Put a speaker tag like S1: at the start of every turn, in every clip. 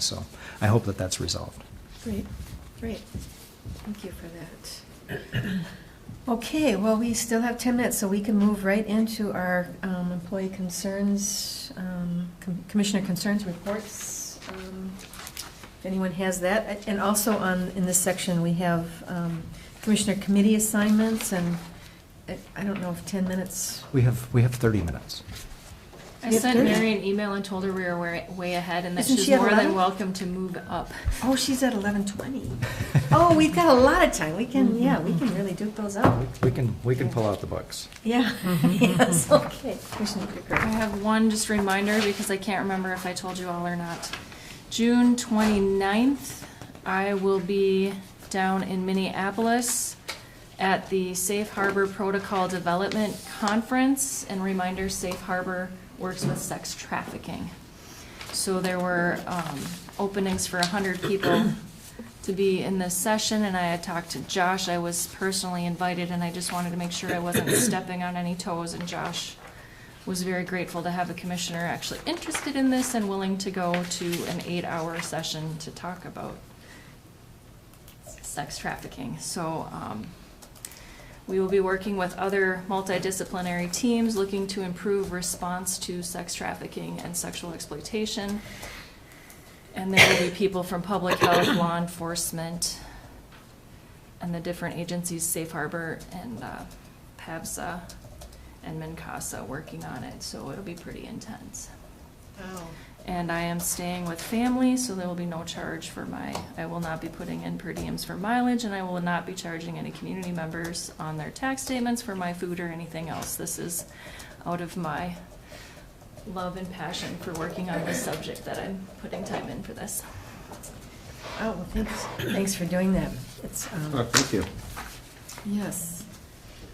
S1: So I hope that that's resolved.
S2: Great, great. Thank you for that. Okay, well, we still have 10 minutes, so we can move right into our um, employee concerns, um, com- commissioner concerns reports. um, If anyone has that. And also on, in this section, we have um, commissioner committee assignments, and I- I don't know if 10 minutes,
S1: We have, we have 30 minutes.
S3: I
S2: Yeah,
S3: sent
S2: there-
S3: Mary an email and told her we were way, way ahead and that
S2: Isn't
S3: she's
S2: she at
S3: more
S2: 11?
S3: than welcome to move up.
S2: oh, she's at 11:20. Oh, we've got a lot of time. We can, yeah, we can really duke those out.
S1: We can, we can pull out the books.
S2: Yeah, yes, okay. Commissioner
S3: I
S2: Whitaker.
S3: have one just reminder because I can't remember if I told you all or not. June 29th, I will be down in Minneapolis at the Safe Harbor Protocol Development Conference. And reminder, Safe Harbor works with sex trafficking. So there were um, openings for 100 people to be in this session, and I had talked to Josh. I was personally invited, and I just wanted to make sure I wasn't stepping on any toes. And Josh was very grateful to have a commissioner actually interested in this and willing to go to an eight-hour session to talk about sex trafficking. So um, we will be working with other multidisciplinary teams looking to improve response to sex trafficking and sexual exploitation. And there will be people from public health, law enforcement, and the different agencies, Safe Harbor and uh, PAVSA and MINCASA, working on it. So it'll be pretty intense. And I am staying with family, so there will be no charge for my, I will not be putting in per diems for mileage, and I will not be charging any community members on their tax statements for my food or anything else. This is out of my love and passion for working on this subject that I'm putting time in for this.
S2: Oh, well, thanks, thanks for doing that. It's, um,
S4: Oh, thank you.
S2: yes.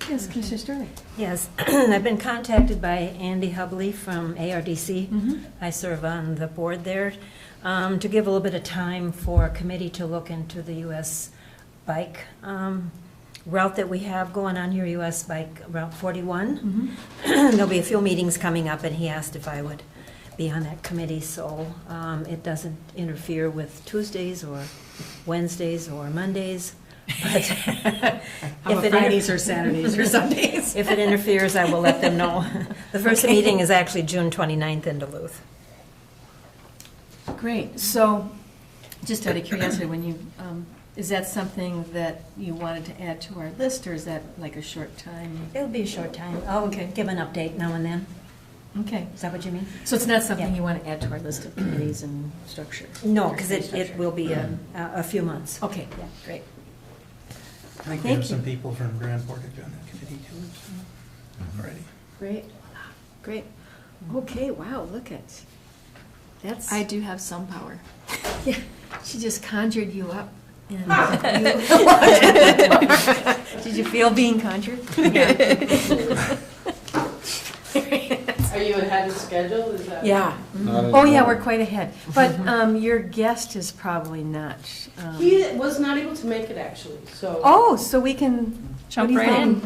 S2: Yes, Commissioner Sterling.
S5: Yes, I've been contacted by Andy Hubley from
S2: Mm-hmm.
S5: ARDC. I serve on the board there, um, to give a little bit of time for a committee to look into the US bike um, route that we have going on here, US Bike Route
S2: Mm-hmm.
S5: 41. There'll be a few meetings coming up, and he asked if I would be on that committee, so um, it doesn't interfere with Tuesdays or Wednesdays or Mondays. But if it
S6: Fridays or Saturdays or Sundays?
S5: If it interferes, I will let them know. The first meeting is actually June 29th in Duluth.
S2: Great, so, just out of curiosity, when you, um, is that something that you wanted to add to our list, or is that like a short time?
S5: It'll be a short time. I'll give an update now and then.
S2: Okay,
S5: Is that what you mean?
S2: so it's not something
S5: Yeah.
S2: you want to add to our list of committees and structure?
S5: No, because it,
S2: Organization
S5: it will be a, a a few months.
S2: structure. Okay, yeah, great.
S7: I think we
S2: Thank
S7: have some
S2: you.
S7: people from Grand Portage on that committee too, so, already.
S2: Great, great. Okay, wow, look at, that's,
S3: I do have some power.
S2: yeah, she just conjured you up. and you- Did you feel being conjured?
S8: Are you ahead of schedule? Is that?
S2: Yeah. Oh, yeah, we're quite ahead. But um, your guest is probably not. um,
S8: He was not able to make it actually, so
S2: Oh, so we can.
S3: Jump
S2: what do you
S3: right
S2: think?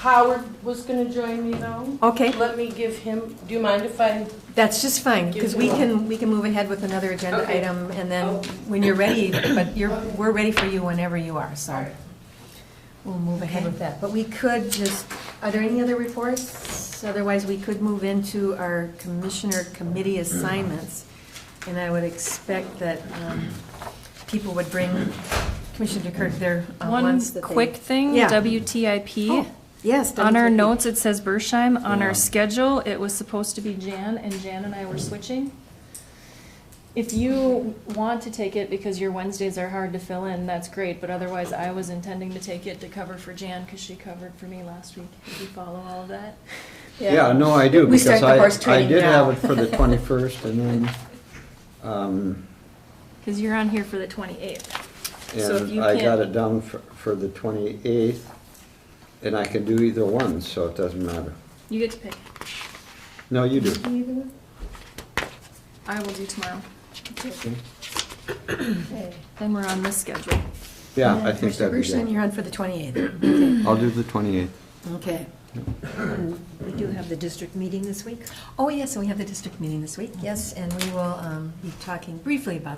S8: Howard was gonna join me though.
S2: Okay,
S8: Let me give him, do you mind if I?
S2: that's just fine, because
S8: Give
S2: we
S8: him
S2: can, we can move ahead with another agenda
S8: Okay.
S2: item, and then
S8: Oh.
S2: when you're ready, but you're, we're ready for you whenever you are, so.
S8: Alright.
S2: We'll move ahead with that. But we could just, are there any other reports? Otherwise, we could move into our commissioner committee assignments. And I would expect that um, people would bring Commissioner Kirk their uh,
S3: One
S2: ones that they.
S3: quick thing,
S2: Yeah.
S3: WTIP.
S2: Oh, Yes.
S3: On our
S2: WTP.
S3: notes, it says Bershheim. On our schedule, it was supposed to be Jan, and Jan and I were switching. If you want to take it because your Wednesdays are hard to fill in, that's great, but otherwise I was intending to take it to cover for Jan because she covered for me last week. Did you follow all of that?
S4: Yeah, no, I do,
S2: We
S4: because
S2: start the horse
S4: I, I
S2: trading
S4: did
S2: now.
S4: have it for the 21st, and then, um,
S3: Because you're on here for the 28th. So if you
S4: and I got
S3: can't-
S4: it down for, for the 28th, and I can do either one, so it doesn't matter.
S3: You get to pick.
S4: No, you do.
S3: I will do tomorrow.
S4: Okay.
S3: Then we're on this schedule.
S4: Yeah, I
S2: And
S4: think that'd be
S2: Commissioner Bergstein,
S4: good.
S2: you're on for the 28th.
S4: I'll do the 28th.
S2: Okay.
S5: We do have the district meeting this week.
S2: Oh, yes, and we have the district meeting this week, yes, and we will um, be talking briefly about